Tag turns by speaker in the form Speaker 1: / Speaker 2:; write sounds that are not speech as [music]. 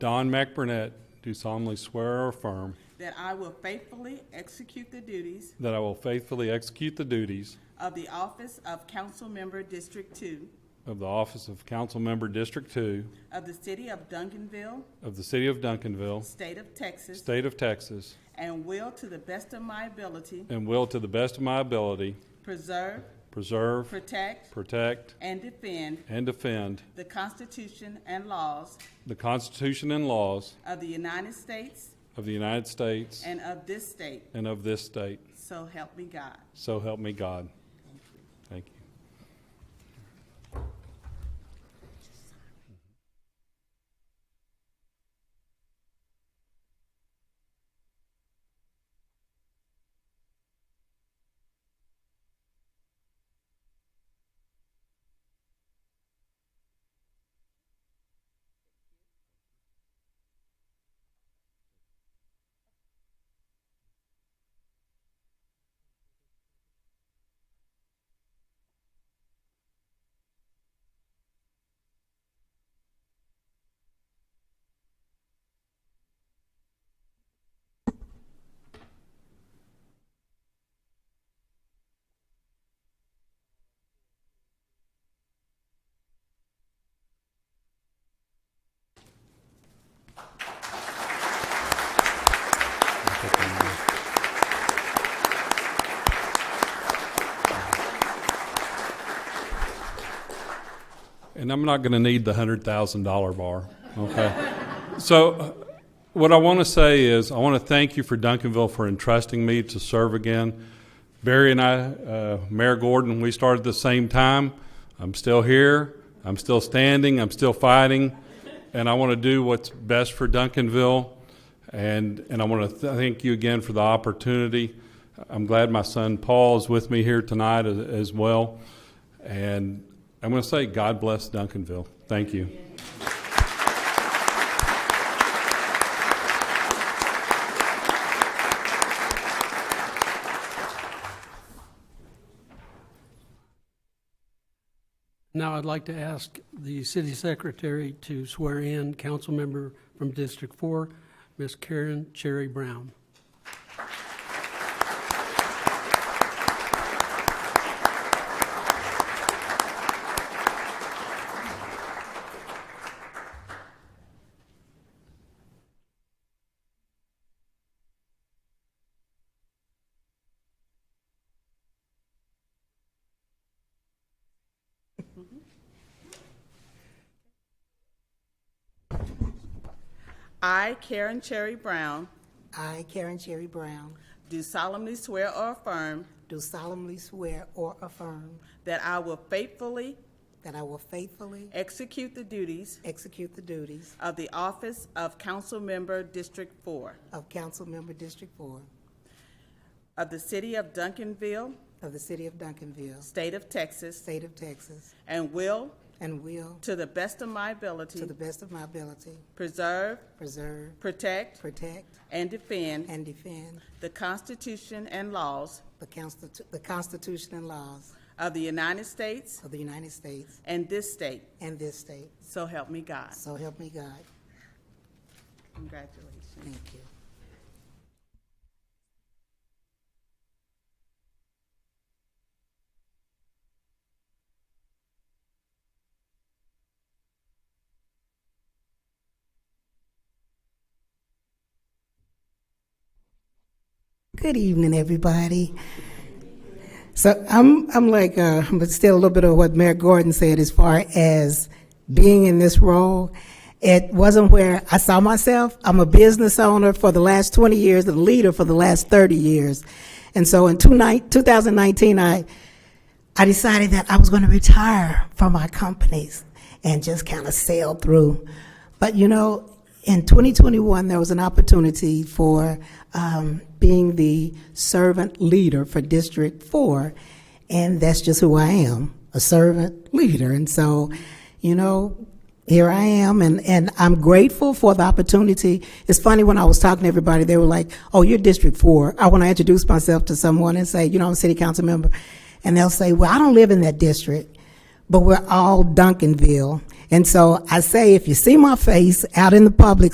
Speaker 1: Don McBurnett, do solemnly swear or affirm
Speaker 2: that I will faithfully execute the duties
Speaker 1: that I will faithfully execute the duties
Speaker 2: of the office of council member District Two
Speaker 1: of the office of council member District Two
Speaker 2: of the city of Duncanville,
Speaker 1: of the city of Duncanville,
Speaker 2: state of Texas,
Speaker 1: state of Texas,
Speaker 2: and will to the best of my ability
Speaker 1: and will to the best of my ability
Speaker 2: preserve,
Speaker 1: preserve,
Speaker 2: protect,
Speaker 1: protect,
Speaker 2: and defend
Speaker 1: and defend
Speaker 2: the Constitution and laws
Speaker 1: the Constitution and laws
Speaker 2: of the United States
Speaker 1: of the United States
Speaker 2: and of this state,
Speaker 1: and of this state.
Speaker 2: so help me God.
Speaker 1: So help me God. Thank you. And I'm not going to need the hundred thousand dollar bar. Okay. so, uh, what I want to say is, I want to thank you for Duncanville for entrusting me to serve again. Barry and I, uh, Mayor Gordon, we started at the same time. I'm still here. I'm still standing. I'm still fighting, and I want to do what's best for Duncanville. And and I want to th- thank you again for the opportunity. I'm glad my son Paul is with me here tonight as, as well. And I'm going to say, God bless Duncanville. Thank you.
Speaker 3: Now I'd like to ask the city secretary to swear in council member from District Four, Miss Karen Cherry Brown.
Speaker 2: I, Karen Cherry Brown,
Speaker 4: I, Karen Cherry Brown,
Speaker 2: do solemnly swear or affirm
Speaker 4: do solemnly swear or affirm
Speaker 2: that I will faithfully
Speaker 4: that I will faithfully
Speaker 2: execute the duties
Speaker 4: execute the duties
Speaker 2: of the office of council member District Four
Speaker 4: of Council Member District Four
Speaker 2: of the city of Duncanville,
Speaker 4: of the City of Duncanville,
Speaker 2: state of Texas,
Speaker 4: State of Texas,
Speaker 2: and will,
Speaker 4: and will,
Speaker 2: to the best of my
Speaker 4: to
Speaker 2: ability,
Speaker 4: the best of my ability,
Speaker 2: preserve,
Speaker 4: preserve,
Speaker 2: protect,
Speaker 4: protect,
Speaker 2: and defend
Speaker 4: and defend
Speaker 2: the Constitution and laws
Speaker 4: the Constitu- the Constitution and laws
Speaker 2: of the United States
Speaker 4: of the United States
Speaker 2: and this state,
Speaker 4: and this state.
Speaker 2: so help me God.
Speaker 4: So help me God.
Speaker 2: Congratulations.
Speaker 4: Thank you. Good evening, everybody. So I'm, I'm like, uh, [laughs] but still a little bit of what Mayor Gordon said as far as being in this role. It wasn't where I saw myself. I'm a business owner for the last 20 years and a leader for the last 30 years. And so in two nine- 2019, I, I decided that I was going to retire from my companies and just kind of sail through. But you know, in 2021, there was an opportunity for um, being the servant leader for District 4, and that's just who I am a servant leader. And so, you know, here I am, and, and I'm grateful for the opportunity. It's funny when I was talking to everybody, they were like, "Oh, you're District Four. I want to introduce myself to someone and say, "You know, I'm a city council member," and they'll say, "Well, I don't live in that district, but we're all Duncanville." And so I say, if you see my face out in the public